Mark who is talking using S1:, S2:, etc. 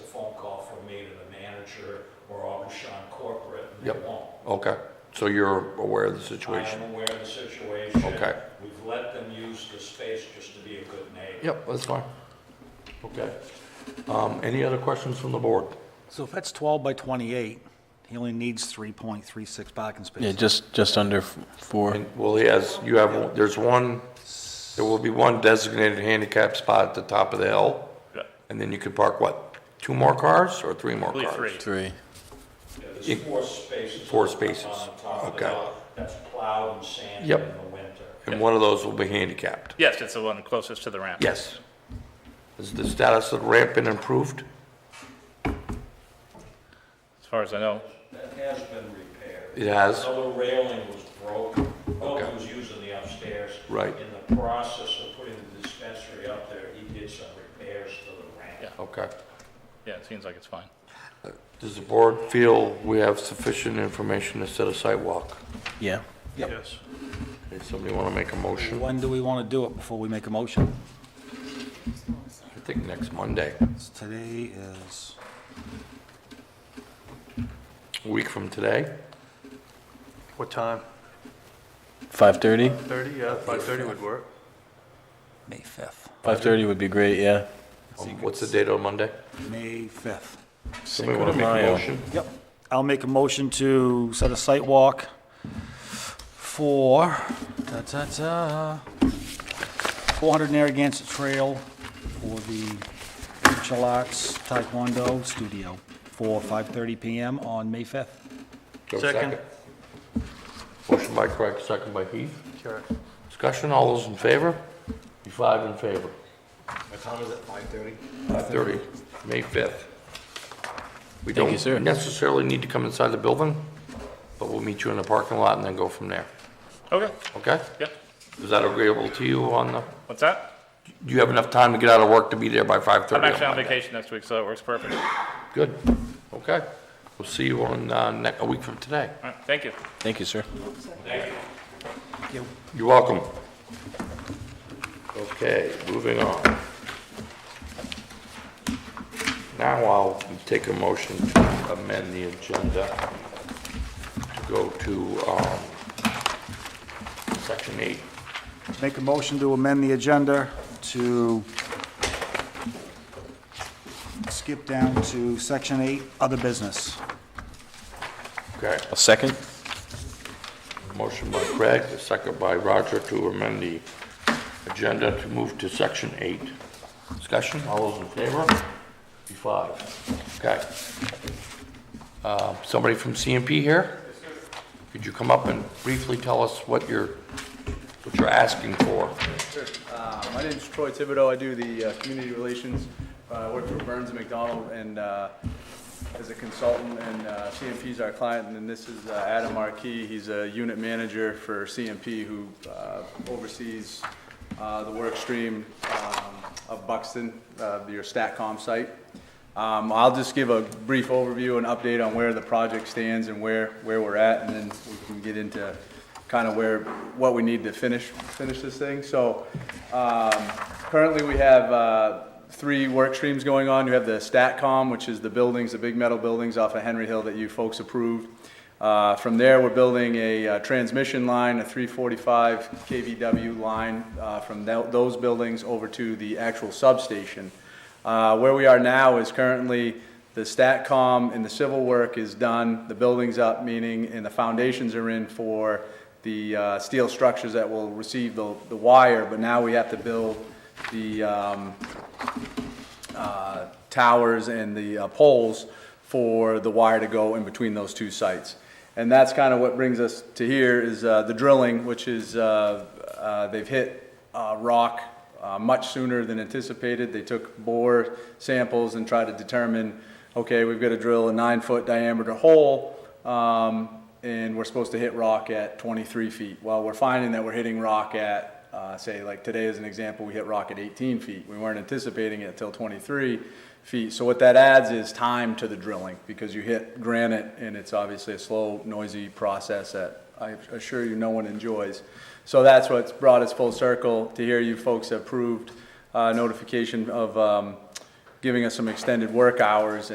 S1: Yep.
S2: It won't.
S1: Okay, so you're aware of the situation?
S2: I'm aware of the situation.
S1: Okay.
S2: We've let them use the space just to be a good neighbor.
S1: Yep, that's fine. Okay. Um, Any other questions from the board?
S3: So if that's 12 by 28, he only needs 3.36 parking
S4: Yeah,
S3: spaces.
S4: just, just under f- four.
S1: And, well, he has, you have, there's one, there will be one designated handicap spot at the top of the hill.
S5: Yeah.
S1: And then you can park, what, two more cars or three more
S5: Only
S1: cars?
S5: three.
S4: Three.
S2: Yeah,
S1: It-
S2: There's four spaces.
S1: four
S2: on the top-
S1: spaces.
S2: On the top of the
S1: Okay.
S2: hill. That's plowed and sanded
S1: Yep.
S2: in the winter.
S1: And one of those will be handicapped?
S5: Yes, it's the one closest to the ramp.
S1: Yes. Has the status of the ramp been improved?
S5: As far as I know.
S2: That has been repaired.
S1: It has?
S2: Another railing was broken.
S1: Okay.
S2: Wilk was using the upstairs.
S1: Right.
S2: In the process of putting the dispensary up there, he did some repairs to the ramp.
S5: Yeah.
S1: Okay.
S5: Yeah, it seems like it's fine.
S1: Does the board feel we have sufficient information to set a sidewalk?
S4: Yeah.
S2: Yes.
S1: Does somebody want to make a motion?
S3: When do we want to do it before we make a motion?
S1: I think next Monday,
S3: Today is,
S1: a week from today.
S6: What time?
S4: Five thirty?
S6: 30, yeah, 5:30 would work.
S3: May 5th.
S4: Five thirty would be great, yeah.
S1: Um, What's the date on Monday?
S3: May 5th.
S1: Somebody
S4: Cinco
S1: want
S4: de
S1: to make a
S4: Mayo.
S1: motion?
S3: Yep. I'll make a motion to set a site walk for, da-da-da, 400 Narragansett Trail for the martial arts taekwondo studio for 5:30 PM on May 5th.
S1: Go
S6: Second.
S1: Motion by Craig, second by Heath.
S6: Sure.
S1: Discussion, all those in favor? Be five in favor. What time is it, 5:30? 5:30, May 5th. We
S4: Thank you, sir.
S1: don't necessarily need to come inside the building, but we'll meet you in the parking lot and then go from there,
S5: Okay,
S1: okay?
S5: yeah.
S1: Is that agreeable to you on the,
S5: What's that?
S1: do you have enough time to get out of work to be there by 5:30?
S5: I'm actually on vacation next week, so it works perfect. All
S1: Good, okay. We'll see you on, uh, ne- a week from today.
S5: right, thank you.
S4: Thank you, sir.
S1: You're welcome. Okay, moving on. Now I'll take a motion to amend the agenda to go to um, section eight.
S3: Make a motion to amend the agenda to skip down to section eight, other business.
S1: Okay,
S4: A second?
S1: motion by Craig, a second by Roger to amend the agenda to move to section eight. Discussion, all those in favor? Be five. Okay. Uh, Somebody from CMP here? Could you come up and briefly tell us what you're, what you're asking for?
S7: Uh, My name's Troy Thibodeau. I do the uh, community relations. Uh, I work for Burns and McDonald and uh, as a consultant, and uh, CMP's our client. And then this is uh, Adam Markey. He's a unit manager for CMP who uh, oversees uh, the work stream um, of Buxton, uh, your StatCom site. Um, I'll just give a brief overview and update on where the project stands and where, where we're at, and then we can get into kind of where, what we need to finish, finish this thing. So, um, currently we have, uh, three work streams going on. You have the StatCom, which is the buildings, the big metal buildings off of Henry Hill that you folks approved. Uh, from there, we're building a, uh transmission line, a three forty-five KVW line, uh, from tho- those buildings over to the actual substation. Uh, Where we are now is currently the StatCom and the civil work is done, the building's up, meaning, and the foundations are in for the uh, steel structures that will receive the the wire, but now we have to build the um, uh, towers and the uh, poles for the wire to go in between those two sites. And that's kind of what brings us to here is uh, the drilling, which is, uh, uh, they've hit uh, rock uh, much sooner than anticipated. They took bore samples and tried to determine, okay, we've got to drill a nine-foot diameter hole, um, and we're supposed to hit rock at 23 feet. Well, we're finding that we're hitting rock at, uh, say, like today as an example, we hit rock at 18 feet. We weren't anticipating it until 23 feet. So what that adds is time to the drilling because you hit granite and it's obviously a slow, noisy process that I assure you no one enjoys. So that's what's brought us full circle to hear you folks approved uh, notification of um, giving us some extended work hours